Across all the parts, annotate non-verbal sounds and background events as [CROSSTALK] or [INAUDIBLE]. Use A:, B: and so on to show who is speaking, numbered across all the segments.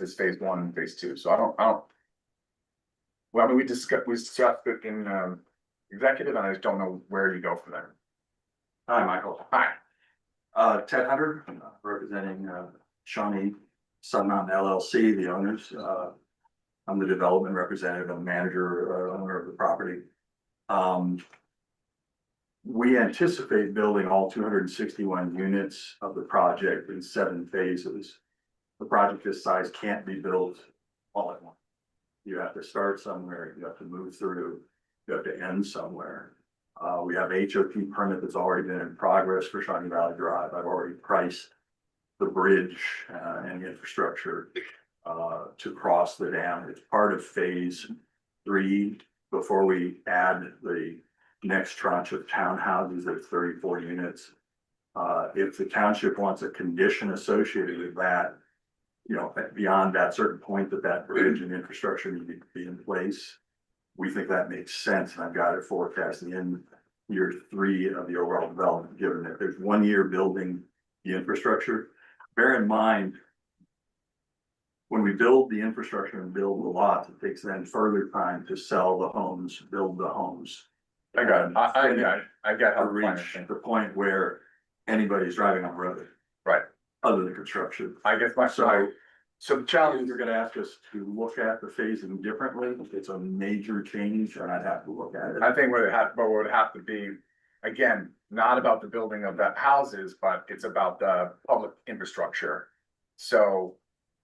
A: is phase one and phase two, so I don't, I don't. Well, I mean, we discussed, we discussed it in um executive, and I just don't know where you go from there.
B: Hi, Michael.
A: Hi,
B: Uh, Ted Hunter, uh, representing, uh, Shawnee Sun Mountain LLC, the owners, uh. I'm the development representative, I'm manager, uh, owner of the property. Um. We anticipate building all two hundred and sixty-one units of the project in seven phases. The project this size can't be built all at once. You have to start somewhere, you have to move through, you have to end somewhere. Uh, we have HOP permit that's already been in progress for Shawnee Valley Drive. I've already priced the bridge, uh, and the infrastructure, uh, to cross the dam. It's part of phase three. Before we add the next tranche of townhouses, there's thirty-four units. Uh, if the township wants a condition associated with that, you know, beyond that certain point that that bridge and infrastructure need to be in place, we think that makes sense, and I've got it forecasted in year three of the overall development, given that there's one year building the infrastructure. Bear in mind, when we build the infrastructure and build the lots, it takes then further time to sell the homes, build the homes.
A: I got it, I, I got it, I got
B: To
A: how to find
B: reach
A: it.
B: the point where anybody's driving on the road.
A: Right.
B: Other than construction.
A: I guess my, so,
B: So-
A: so the
B: Challenge,
A: challenge,
B: you're gonna ask us to look at the phasing differently. It's a major change and I'd have to look at it.
A: I think would have, but would have to be, again, not about the building of that houses, but it's about the public infrastructure. So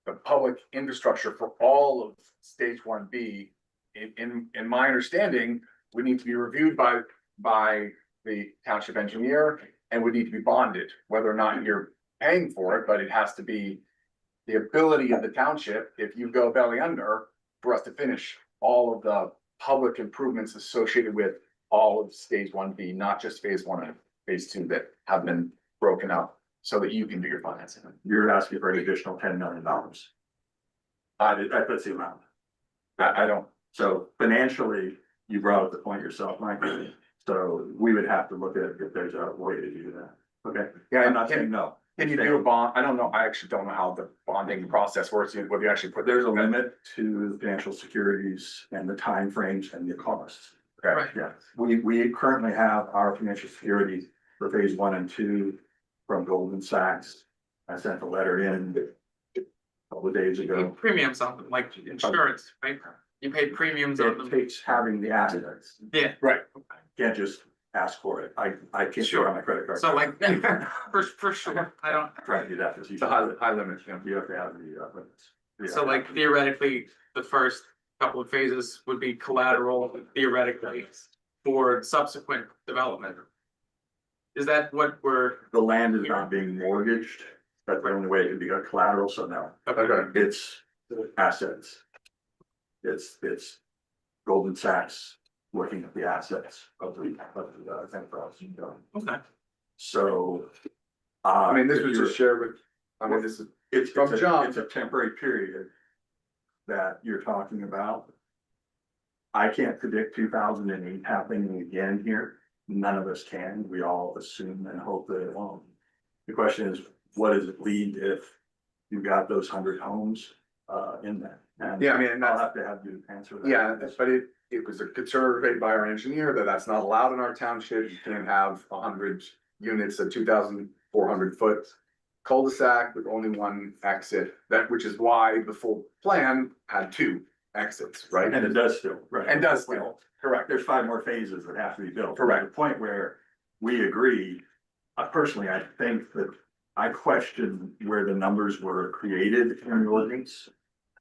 A: the public infrastructure for all of stage one B, in, in, in my understanding, would need to be reviewed by, by the township engineer and would need to be bonded, whether or not you're paying for it, but it has to be the ability of the township, if you go belly under, for us to finish all of the public improvements associated with all of stage one B, not just phase one and phase two that have been broken up so that you can do your financing.
B: You're asking for an additional ten million dollars. I did, I put the amount.
A: I, I don't,
B: So financially, you brought up the point yourself, Mike. So we would have to look at if there's a way to do that. Okay,
A: yeah,
B: I'm
A: and
B: not
A: can,
B: saying no.
A: can you do a bond? I don't know. I actually don't know how the bonding process works. You- Whether you actually put,
B: There's a limit to the financial securities and the timeframes and the costs.
A: okay,
B: Yeah, we, we currently have our financial security for phase one and two from Goldman Sachs. I sent a letter in a couple of days ago.
C: Premiums on them, like insurance, right? You pay premiums on
B: It
C: them.
B: takes having the assets.
C: Yeah.
A: Right.
B: Can't just ask for it. I, I can't show
C: Sure.
B: on my credit card. [LAUGHS]
C: So like, [LAUGHS] for, for sure, I don't,
B: Trying to do
C: [LAUGHS]
B: that. 'cause you-
A: it's a high, high limit. yeah.
B: You have to have the, uh, limits. Yeah.
C: so like theoretically, the first couple of phases would be collateral theoretically for subsequent development. Is that what we're,
B: The land is not being mortgaged. That's the only way it can be a collateral, so no.
C: okay,
B: It's assets. It's, it's Goldman Sachs looking at the assets of the, of the, uh, enterprise.
C: okay,
B: So. uh,
A: I mean, this was just shared with, I mean, this is,
B: It's,
A: from
B: it's a,
A: John.
B: it's a temporary period that you're talking about. I can't predict two thousand and eight happening again here. None of us can. We all assume and hope that it won't. The question is, what does it lead if you've got those hundred homes uh in that? And
A: yeah, I mean, and
B: I'll
A: that's,
B: have to have you answer that.
A: yeah, that's- but it, it was a survey by our engineer that that's not allowed in our township. You can't have a hundred units, a two thousand four hundred foot cul-de-sac with only one exit, that, which is why the full plan had two exits, right?
B: And it does still, right?
A: And does still. Correct.
B: there's five more phases that have to be built.
A: Correct.
B: The point where we agree, uh, personally, I think that I question where the numbers were created in the ordinance.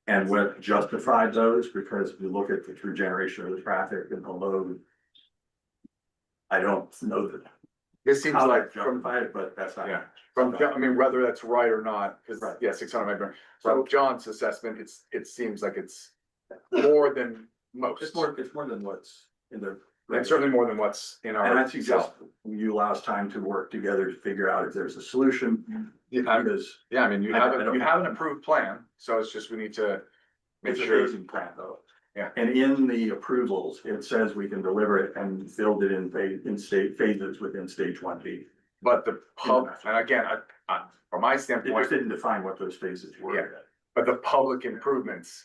B: And what justified those, because if you look at the through generation of the traffic and the load. I don't know that,
A: This seems
B: how
A: like
B: that justified it, but that's not.
A: Yeah. From, Jo- I mean, whether that's right or not, because,
B: Right.
A: yeah, six hundred megahertz. So John's assessment, it's, it seems like it's more than most.
B: It's more, it's more than what's in the.
A: And certainly more than what's in our.
B: And I suggest you allow us time to work together to figure out if there's a solution,
A: Yeah, I-
B: because.
A: yeah, I mean, you
B: I- I
A: have, a-
B: don't-
A: you have an approved plan, so it's just we need to make
B: It's a
A: sure.
B: phasing plan though.
A: Yeah.
B: And in the approvals, it says we can deliver it and build it in phase, in state phases within stage one B.
A: But the pub, and again, I, I, from my
B: It
A: standpoint,
B: just didn't define what those phases were.
A: But the public improvements